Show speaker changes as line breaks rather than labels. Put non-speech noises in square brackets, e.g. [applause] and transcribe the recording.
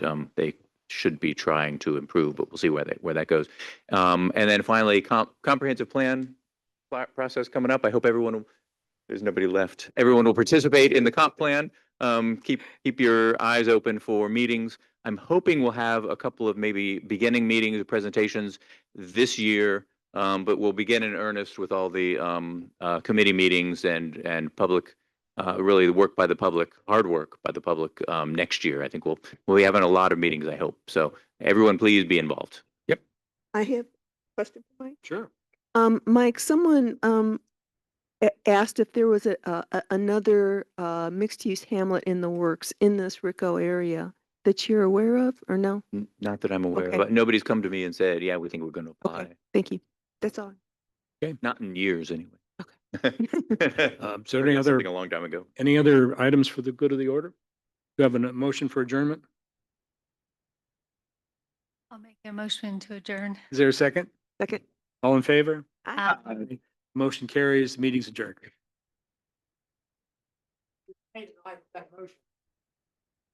um, they should be trying to improve, but we'll see where that, where that goes. Um, and then finally, comp- comprehensive plan pla- process coming up. I hope everyone, will- there's nobody left. Everyone will participate in the comp plan. Um, keep, keep your eyes open for meetings. I'm hoping we'll have a couple of maybe beginning meetings, or presentations this year. Um, but we'll begin in earnest with all the, um, uh, committee meetings and, and public, uh, really the work by the public, hard work by the public, um, next year. I think we'll, we'll be having a lot of meetings, I hope. So everyone, please be involved.
I have a question for Mike.
Sure.
Um, Mike, someone, um, a- asked if there was a, a, a- another, uh, mixed-use hamlet in the works in this Rico area that you're aware of, or no?
N- Not that I'm aware of,
Okay.
but nobody's come to me and said, yeah, we think we're going to
Okay.
apply.
Thank you. That's all.
Not in years, anyway.
[laughs]
[laughs] Uh,
Um, So any other,
Something A long time ago.
any other items for the good of the order? Do you have a n- motion for adjournment?
I'll make a motion to adjourn.
Is there a second?
Second.
All in favor?
Aye.
Motion carries, meeting's adjourned.